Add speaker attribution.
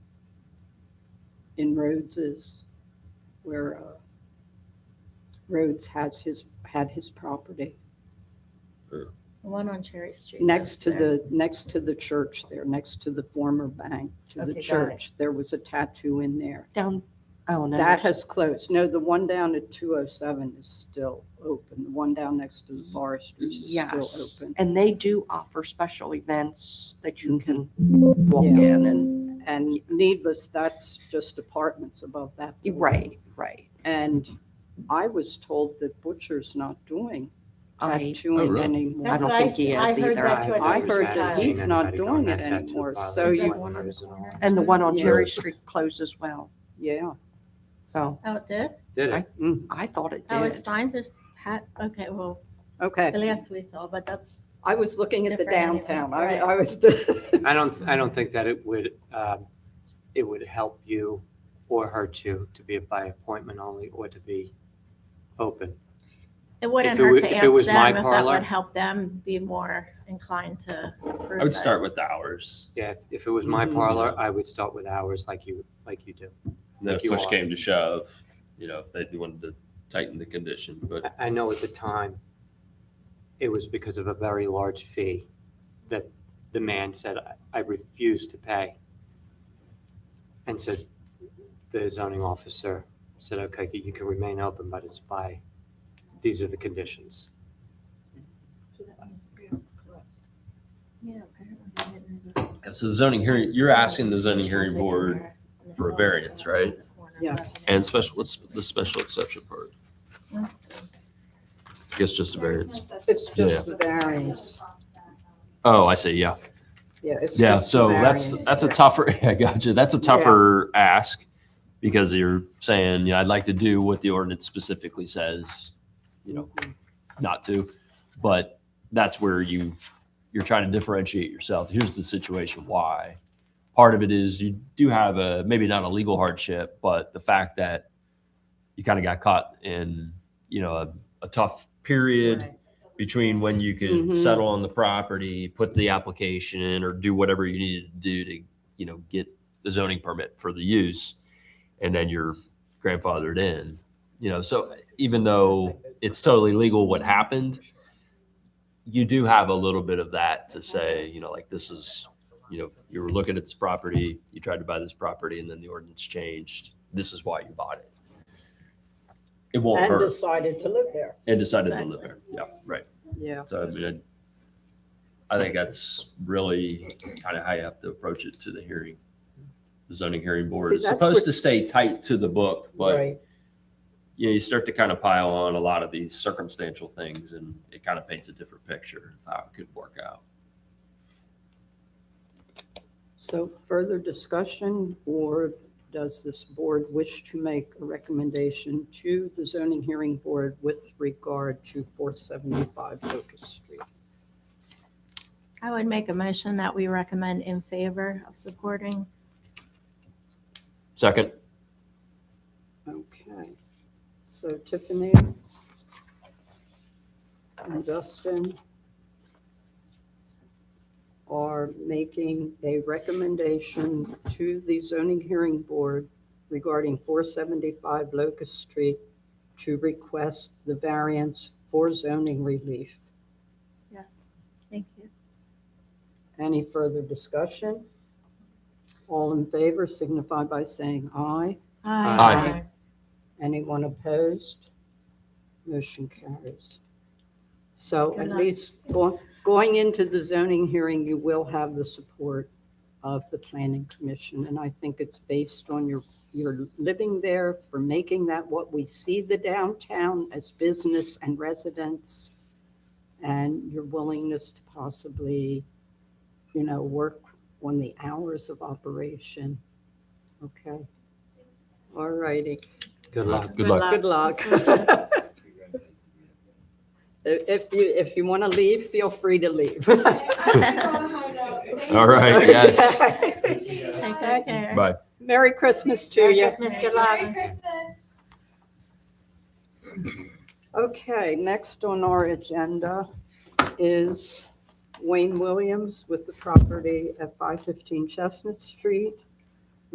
Speaker 1: in Rhodes is where uh, Rhodes has his, had his property,
Speaker 2: The one on Cherry Street.
Speaker 1: next
Speaker 2: that's
Speaker 1: to
Speaker 2: there.
Speaker 1: the, next to the church there, next to the former bank, to
Speaker 2: Okay,
Speaker 1: the
Speaker 2: got it.
Speaker 1: church. There was a tattoo in there.
Speaker 3: Down, oh, no.
Speaker 1: That
Speaker 3: that's-
Speaker 1: has closed. No, the one down at 207 is still open. The one down next to the foresters is
Speaker 3: Yes.
Speaker 1: still open.
Speaker 3: And they do offer special events that you can walk in and,
Speaker 1: And needless, that's just apartments above that. building.
Speaker 3: right, right.
Speaker 1: And I was told that Butcher's not doing
Speaker 3: I,
Speaker 4: Oh,
Speaker 1: tattooing
Speaker 4: really?
Speaker 1: anymore.
Speaker 3: I
Speaker 2: That's
Speaker 3: don't
Speaker 2: what I
Speaker 3: think he
Speaker 2: s- I
Speaker 3: is
Speaker 2: heard
Speaker 3: either.
Speaker 2: that too.
Speaker 1: I
Speaker 2: thought it was
Speaker 1: heard
Speaker 2: a
Speaker 1: that
Speaker 2: tie.
Speaker 1: he's not doing it
Speaker 4: that
Speaker 1: anymore,
Speaker 4: tattoo
Speaker 1: so
Speaker 4: parlor.
Speaker 2: Is that
Speaker 1: you,
Speaker 2: one on the
Speaker 4: Is it
Speaker 2: corner?
Speaker 3: and the one on
Speaker 1: Yeah.
Speaker 3: Cherry Street closed as well.
Speaker 1: yeah.
Speaker 3: So
Speaker 2: Oh, it did?
Speaker 4: Did it?
Speaker 1: Mm.
Speaker 3: I thought it
Speaker 2: Oh,
Speaker 3: did.
Speaker 2: his signs are pat, okay, well, the
Speaker 1: Okay,
Speaker 2: last we saw, but that's,
Speaker 1: I was looking at the
Speaker 2: Different anyway,
Speaker 1: downtown. I,
Speaker 2: right.
Speaker 1: I was,
Speaker 4: I don't, I don't think that it would, um, it would help you or hurt you to be by appointment only or to be open.
Speaker 2: it wouldn't
Speaker 4: it wa-
Speaker 2: hurt to
Speaker 4: if
Speaker 2: ask
Speaker 4: it
Speaker 2: them
Speaker 4: was
Speaker 2: if
Speaker 4: my
Speaker 2: that
Speaker 4: parlor-
Speaker 2: would help them be more inclined to approve
Speaker 5: I would
Speaker 2: it.
Speaker 5: start with the hours.
Speaker 4: Yeah, if it was my
Speaker 1: Mhm.
Speaker 4: parlor, I would start with hours like you, like you do.
Speaker 5: And then
Speaker 4: Like
Speaker 5: if
Speaker 4: you
Speaker 5: push
Speaker 4: are.
Speaker 5: came to shove, you know, if they wanted to tighten the condition, but
Speaker 4: I- I know at the time, it was because of a very large fee that the man said, "I- I refuse to pay. And so the zoning officer said, okay, you you can remain open, but it's by, these are the conditions.
Speaker 2: Yeah, apparently they didn't.
Speaker 5: so the zoning hearing, you're asking the zoning hearing board, for a variance, right?
Speaker 1: Yes.
Speaker 5: and special, what's the special exception part? I guess just a variance.
Speaker 1: it's just the variance.
Speaker 5: Oh, I see, yeah.
Speaker 1: Yeah, it's
Speaker 5: Yeah,
Speaker 1: just the
Speaker 5: so that's,
Speaker 1: variance.
Speaker 5: that's a tougher, I got you, that's a tougher ask because you're saying, you know, I'd like to do what the ordinance specifically says, you know, not to, but that's where you, you're trying to differentiate yourself. Here's the situation why. Part of it is you do have a, maybe not a legal hardship, but the fact that you kind of got caught in, you know, a, a tough period between when you could
Speaker 1: Mhm.
Speaker 5: settle on the property, put the application in, or do whatever you needed to do to, you know, get the zoning permit for the use, and then you're grandfathered in. You know, so even though it's totally legal what happened, you do have a little bit of that to say, you know, like this is, you know, you were looking at this property, you tried to buy this property, and then the ordinance changed. This is why you bought it. It won't
Speaker 1: And
Speaker 5: hurt,
Speaker 1: decided to live there.
Speaker 5: and decided to
Speaker 2: Exactly.
Speaker 5: live there. Yeah, right.
Speaker 1: Yeah,
Speaker 5: So I mean, I I think that's really kind of how you have to approach it to the hearing. The zoning hearing board
Speaker 1: See,
Speaker 5: is
Speaker 1: that's
Speaker 5: supposed
Speaker 1: what-
Speaker 5: to stay tight to the book, but
Speaker 1: right.
Speaker 5: you know, you start to kind of pile on a lot of these circumstantial things and it kind of paints a different picture of how it could work out.
Speaker 1: So further discussion, or does this board wish to make a recommendation to the zoning hearing board with regard to 475 Locust Street?
Speaker 2: I would make a motion that we recommend in favor of supporting.
Speaker 5: Second,
Speaker 1: Okay, so Tiffany and Dustin are making a recommendation to the zoning hearing board regarding 475 Locust Street to request the variance for zoning relief.
Speaker 2: Yes, thank you.
Speaker 1: Any further discussion? All in favor signify by saying aye.
Speaker 5: Aye.
Speaker 1: Anyone opposed? Motion carries. So
Speaker 2: Good
Speaker 1: at
Speaker 2: luck.
Speaker 1: least go- going into the zoning hearing, you will have the support of the planning commission. And I think it's based on your, your living there for making that what we see the downtown as business and residents and your willingness to possibly, you know, work on the hours of operation. Okay. All righty.
Speaker 4: Good luck.
Speaker 5: good luck.
Speaker 1: Good luck. If you, if you want to leave, feel free to leave.
Speaker 5: All right, yes.
Speaker 2: Take good care.
Speaker 5: Bye.
Speaker 1: Merry Christmas to you.
Speaker 2: Christmas, good luck.
Speaker 6: Merry Christmas.
Speaker 1: Okay, next on our agenda is Wayne Williams with the property at 515 Chestnut Street.